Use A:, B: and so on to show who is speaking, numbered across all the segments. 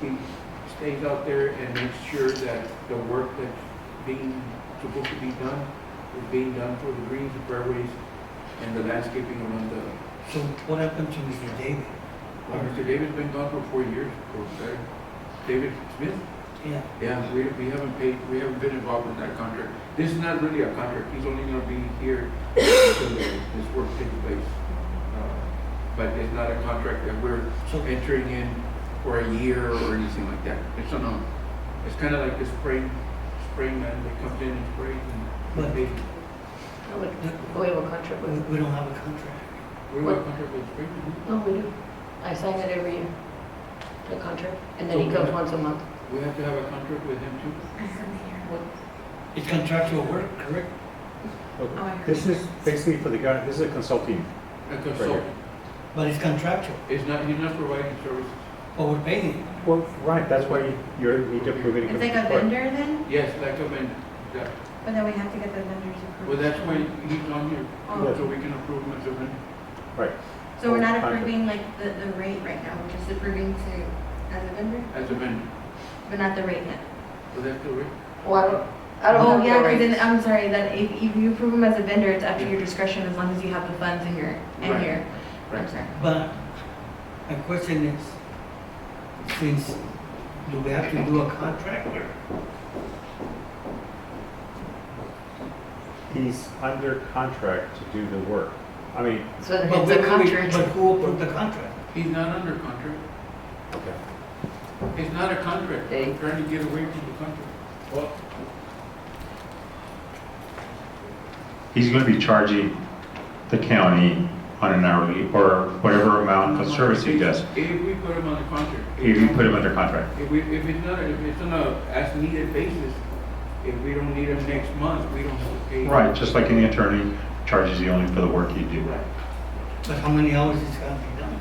A: he stays out there and makes sure that the work that's being, supposed to be done, is being done for the greens, the fairways, and the landscaping around the,
B: So what happened to Mr. David?
A: well, Mr. David's been gone for four years, or better. David Smith?
B: Yeah.
A: Yeah, we, we haven't paid, we haven't been involved in that contract. This is not really a contract, he's only gonna be here until the- this work takes place. Uh, But it's not a contract that we're
B: So,
A: entering in for a year or anything like that. It's on a, it's kind of like the spring, spring man that comes in and sprays
B: But-
A: and they,
C: No, we- We have a contract
B: we,
C: with,
B: we don't have a contract.
A: we have a contract with spring.
C: no, we do. I sign it every year, the contract, and then he comes once a month.
A: We have to have a contract with him too.
B: It's contractual work, correct?
D: Oh,
E: Okay. This is basically for the government, this is a consulting.
A: A consultant.
B: But it's contractual,
A: It's not, he's not providing services.
B: but we're paying him.
E: Well, right, that's why you- you're, need to approve any.
D: It's like a vendor then,
A: Yes, like a man, that,
D: but then we have to get the vendors approved.
A: well, that's why he's on here,
D: Oh.
A: so we can approve him as a vendor.
E: Right,
D: So we're
E: Oh,
D: not approving like the, the rate right now, we're just approving to, as a vendor,
A: as a vendor.
D: but not the rate yet.
A: So that's the rate.
C: Well, I don't, I don't
D: Oh,
C: have
D: yeah,
C: the
D: because
C: right.
D: then, I'm sorry, then if, if you approve them as a vendor, it's up to your discretion as long as you have the funds in your,
A: Right.
D: in your, I'm
A: Right.
D: sorry.
B: But my question is, since, do we have to do a contract?
E: he's under contract to do the work. I mean,
C: So then
B: But
C: it's
B: we-
C: a
B: we- But
C: contract.
B: who approved the contract?
A: He's not under contract.
E: okay.
A: It's not a contract.
C: Hey.
A: I'm trying to get away from the contract. Well,
F: he's gonna be charging the county on an hourly or whatever amount of service he does,
A: If we put him on the contract.
F: if you put him under contract.
A: If we, if it's not, if it's on a as needed basis, if we don't need him next month, we don't have to pay.
F: Right, just like any attorney charges you only for the work you do.
A: Right.
B: But how many hours is gonna be done?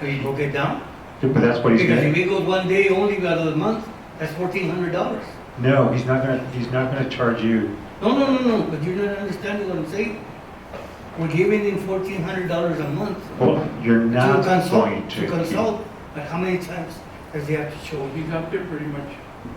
B: Can you broke it down?
F: But that's what he's
B: Because if he
F: gonna,
B: goes one day only out of the month, that's fourteen hundred dollars.
F: no, he's not gonna, he's not gonna charge you,
B: No, no, no, no, but you're not understanding what I'm saying. We're giving him fourteen hundred dollars a month.
F: well, you're
B: To
F: not
B: consult,
F: going to.
B: to consult, but how many times does he have to show
A: So
B: up?
A: he's up there pretty much.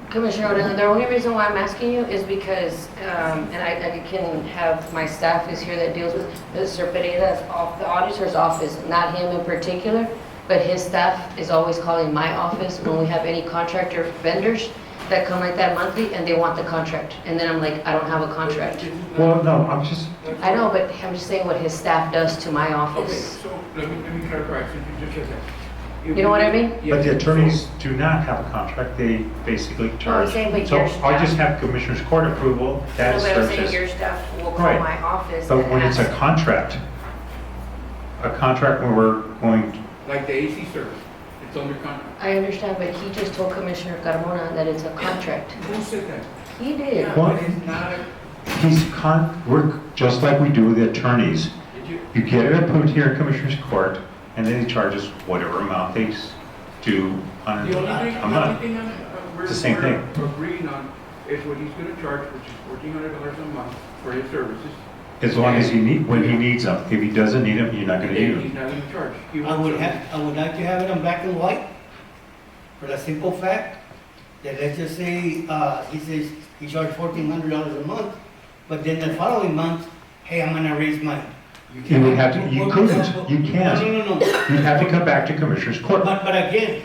C: Commissioner Odena, the only reason why I'm asking you is because, um, and I, I can have, my staff is here that deals with Mr. Pereira's off, the auditor's office, not him in particular, but his staff is always calling my office when we have any contractor vendors that come like that monthly and they want the contract. And then I'm like, I don't have a contract.
A: This is not-
F: Well, no, I'm just,
C: I know, but I'm just saying what his staff does to my
A: Okay,
C: office.
A: so let me, let me clarify, since you just said that. If
C: You know what I
A: we-
C: mean?
A: Yeah.
F: but the attorneys do not have a contract, they basically
C: Oh,
F: charge.
C: saying, but
F: So
C: your
F: I
C: staff-
F: just have commissioner's court approval, that
C: No, but I'm saying your
F: services.
C: staff will call
F: Right.
C: my office and
F: But when it's a
C: ask.
F: contract, a contract where we're going to
A: Like the AC service, it's under contract.
C: I understand, but he just told Commissioner Carmona that it's a contract.
A: Who said that?
C: He did.
A: Yeah,
F: What?
A: but It's not, a-
F: He's con, we're, just like we do with the attorneys,
A: did you,
F: you get it approved here in Commissioners Court, and then he charges whatever amount they s- do on,
A: The only thing,
F: I'm
A: the only
F: not,
A: thing I'm, uh, we're,
F: It's the same
A: we're
F: thing.
A: agreeing on is what he's gonna charge, which is fourteen hundred dollars a month for his services.
F: as long as he need, when he needs them. If he doesn't need them, you're not gonna
A: And
F: use
A: he's
F: them.
A: not gonna charge. He
B: I
A: wants
B: would
A: to-
B: have, I would like to have it on black and white, for the simple fact that let's just say, uh, he says he charged fourteen hundred dollars a month, but then the following month, hey, I'm gonna raise mine.
A: You
F: You
A: can't,
F: would have to, you couldn't, you can't,
B: No, no, no, no,
F: you'd have to come back to Commissioners Court,
B: but, but again,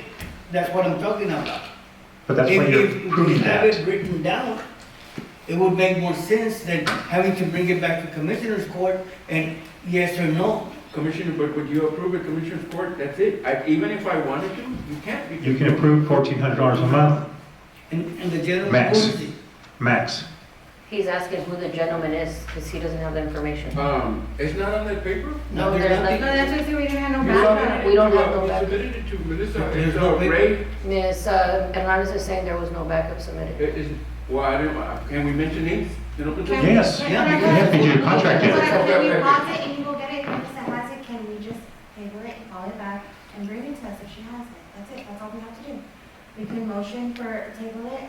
B: that's what I'm talking about.
F: but that's why
B: If-
F: you're
B: if- If
F: proving
B: you have
F: that.
B: it written down, it would make more sense than having to bring it back to commissioner's court and yes or no.
A: Commissioner, but would you approve a commissioner's court? That's it. I, even if I wanted to, you can't. because-
F: You can approve fourteen hundred dollars a month,
B: And, and the general.
F: Max.
B: public-
F: max.
C: He's asking who the gentleman is, because he doesn't have the information.
A: Um, it's not on that paper?
B: Now,
C: No, there's
B: there's
C: nothing.
D: No, that's what I said, we didn't have no
A: You
D: background.
A: submitted it
C: We don't
A: to,
C: have
A: uh,
C: no
A: you
C: back-
A: submitted it to Melissa,
B: There's
A: it's,
B: no
A: uh,
B: paper.
A: Ray,
C: Ms. uh, Hernandez is saying there was no backup
A: it
C: submitted.
A: is, well, I don't, uh, can we mention names? in
G: Can
A: open session?
G: we-
F: Yes,
G: can I
B: yeah, you
G: go-
F: have to do a contract,
G: But
A: yeah.
G: When we want it and you go get it, and Melissa has it, can we just table it, call it back, and bring it to us if she has it? That's it, that's all we have to do. We can motion for table it,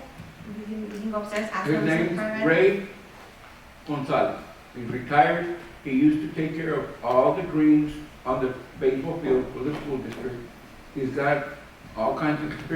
G: we can, we can go upstairs, ask
A: His
G: them
A: name's
G: for it.
A: Ray Gonzalez. He's retired. He used to take care of all the greens on the baseball field for the school district. He's got all kinds of experiences